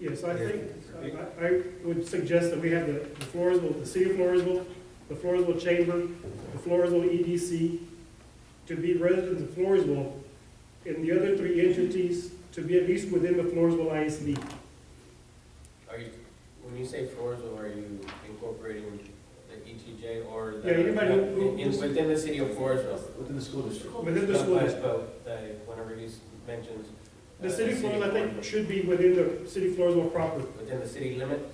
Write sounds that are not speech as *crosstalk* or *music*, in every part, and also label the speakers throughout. Speaker 1: Yes, I think, uh, I- I would suggest that we have the the Floresville, the city of Floresville, the Floresville Chamber, the Floresville EDC, to be residents of Floresville, and the other three entities to be at least within the Floresville ISD.
Speaker 2: Are you, when you say Floresville, are you incorporating the ETJ or the?
Speaker 1: Yeah, anybody who-
Speaker 2: in- in- Within the city of Floresville?
Speaker 3: Within the school district.
Speaker 1: Within the
Speaker 2: Not
Speaker 1: school,
Speaker 2: by
Speaker 1: district.
Speaker 2: vote, the- whenever he mentions. uh,
Speaker 1: the city of Floresville, I
Speaker 2: Floresville.
Speaker 1: think, should be within the city of Floresville proper.
Speaker 2: Within the city limits?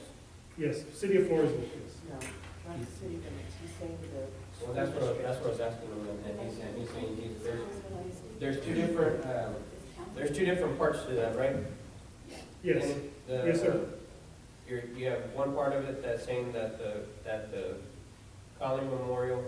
Speaker 1: Yes, city of Floresville, yes.
Speaker 4: No, not the city limits, he's saying the.
Speaker 2: Well, that's what, that's what I was asking him, and he's, and he's saying, he's, there's, there's two different, um, there's two different parts to that, right?
Speaker 1: Yes,
Speaker 2: And the- uh,
Speaker 1: Yes, sir.
Speaker 2: You're, you have one part of it that's saying that the, that the Collin Memorial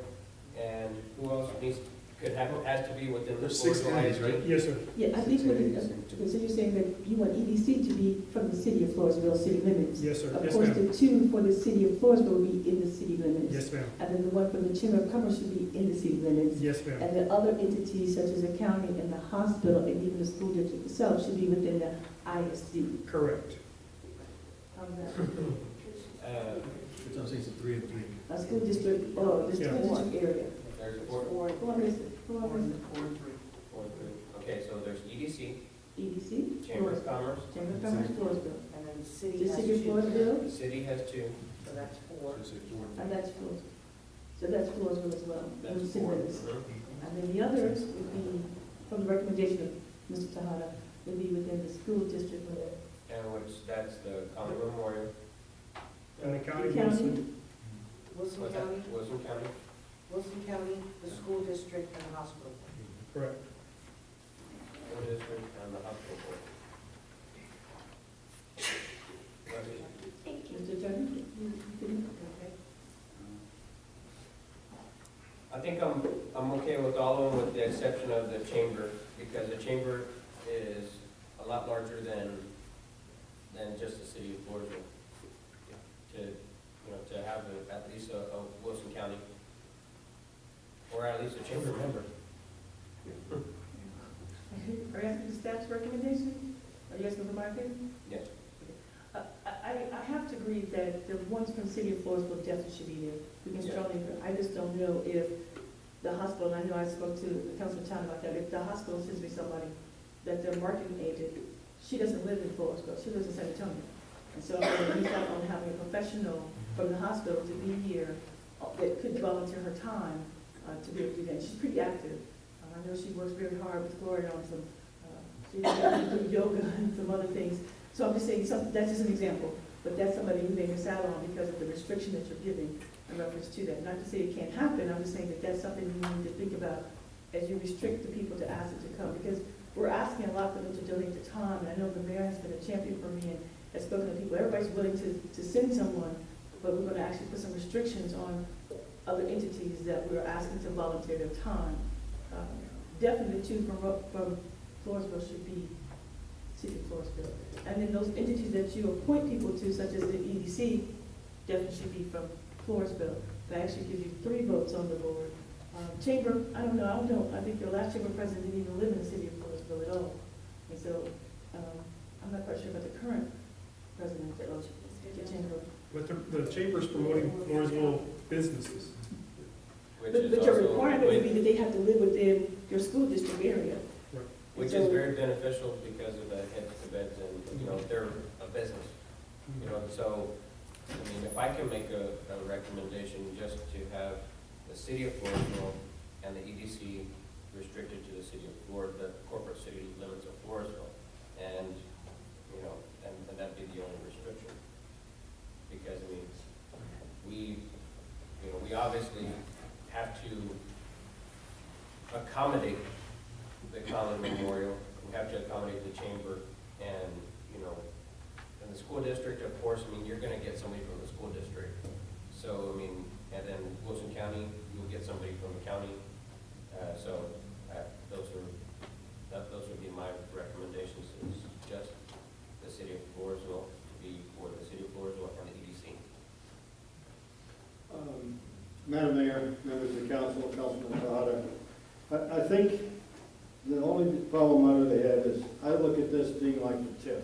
Speaker 2: and who else needs, could have, has to be within the
Speaker 3: There's six
Speaker 2: Floresville
Speaker 3: entities,
Speaker 2: ISD?
Speaker 3: right?
Speaker 1: yes, sir.
Speaker 5: Yeah, I think what it, so you're saying that you want EDC to be from the city of Floresville, city limits.
Speaker 1: Yes, sir.
Speaker 5: Of
Speaker 1: Yes,
Speaker 5: course,
Speaker 1: ma'am.
Speaker 5: the two for the city of Floresville will be in the city limits.
Speaker 1: Yes, ma'am.
Speaker 5: And then the one from the Chamber of Commerce should be in the city limits.
Speaker 1: Yes, ma'am.
Speaker 5: And the other entities such as the county and the hospital and even the school district itself should be within the ISD.
Speaker 1: Correct.
Speaker 5: How's that?
Speaker 2: Uh,
Speaker 3: That's what I'm saying, it's a three and three.
Speaker 5: A uh, school district or the
Speaker 1: Yeah.
Speaker 5: school district area.
Speaker 2: There's four,
Speaker 4: Or,
Speaker 5: Four is, four is
Speaker 2: four, three. Okay, so there's EDC,
Speaker 5: EDC,
Speaker 2: Chamber of Commerce,
Speaker 5: E Chamber of Commerce, Floresville.
Speaker 4: And then the city
Speaker 5: The
Speaker 4: has
Speaker 5: city of
Speaker 4: two,
Speaker 5: Floresville,
Speaker 2: the city has two,
Speaker 4: so that's four.
Speaker 3: Should say four.
Speaker 5: and that's Floresville. So that's Floresville as well.
Speaker 2: that's
Speaker 5: City
Speaker 2: four.
Speaker 5: limits.
Speaker 2: Mhm.
Speaker 5: And then the others would be, from the recommendation of Mr. Tahada, would be within the school district or the
Speaker 2: And which, that's the Collin Memorial,
Speaker 1: And the county.
Speaker 5: the
Speaker 1: wants to-
Speaker 5: county.
Speaker 4: Wilson
Speaker 2: was that
Speaker 4: County,
Speaker 2: Wilson County?
Speaker 4: Wilson County, the school district, and the hospital.
Speaker 1: Correct.
Speaker 2: School district and the hospital board. That is-
Speaker 5: Mr. Attorney? you- you can-
Speaker 4: Okay.
Speaker 2: I think I'm, I'm okay with all of them with the exception of the chamber, because the chamber is a lot larger than, than just the city of Floresville. To, you know, to have a- at least a, a Wilson County, or at least a chamber member.
Speaker 5: Are you asking the staff's recommendation? Are you asking for my opinion?
Speaker 2: Yes.
Speaker 5: Uh, I, I, I have to agree that the ones from City of Floresville definitely should be there. We can
Speaker 2: Yeah.
Speaker 5: strongly, agree. I just don't know if the hospital, and I know I spoke to Councilman Town about that, if the hospital sends me somebody, that their marketing agent, she doesn't live in Floresville, she lives in San Antonio. And so I'm gonna miss out on having a professional from the hospital to be here uh, that could volunteer her time uh, to be able to do that. She's pretty active. Uh, I know she works very hard with Gloria on some, uh, she does yoga and some *laughs* other things. So I'm just saying, some, that's just an example, but that's somebody who may miss out on because of the restriction that you're giving in reference to that. Not to say it can't happen, I'm just saying that that's something you need to think about as you restrict the people to ask them to come, because we're asking a lot for them to donate their time, and I know the mayor has been a champion for me and has spoken to people, everybody's willing to, to send someone, but we're gonna actually put some restrictions on other entities that we're asking to volunteer their time. Uh, Definitely the two from, Ro- from Floresville should be City of Floresville. And then those entities that you appoint people to, such as the EDC, definitely should be from Floresville. That actually gives you three votes on the board. Um, Chamber, I don't know, I don't, I think your last chamber president didn't even live in the city of Floresville at all. And so, um, I'm not quite sure about the current president of the chamber.
Speaker 1: But the, the chamber's promoting Floresville businesses.
Speaker 2: Which
Speaker 5: But,
Speaker 2: is
Speaker 5: but your
Speaker 2: also,
Speaker 5: requirement would be
Speaker 2: which
Speaker 5: that they have to live within your school district area.
Speaker 1: Right.
Speaker 2: which is very beneficial because of the heads to beds and, you know, they're a business. You know, so, I mean, if I can make a, a recommendation just to have the city of Floresville and the EDC restricted to the city of Flor, the corporate city limits of Floresville, and, you know, and, and that'd be the only restriction. Because, I mean, we, you know, we obviously have to accommodate the Collin Memorial, we have to accommodate the chamber, and, you know, and the school district, of course, I mean, you're gonna get somebody from the school district. So, I mean, and then Wilson County, you'll get somebody from the county. Uh, so, uh, those are, that, those would be my recommendations, is just the city of Floresville to be for the city of Floresville and the E EDC.
Speaker 6: Um, Madam Mayor, members of the council, Councilman Tahada, I, I think the only problem I really have is, I look at this being like the TIF.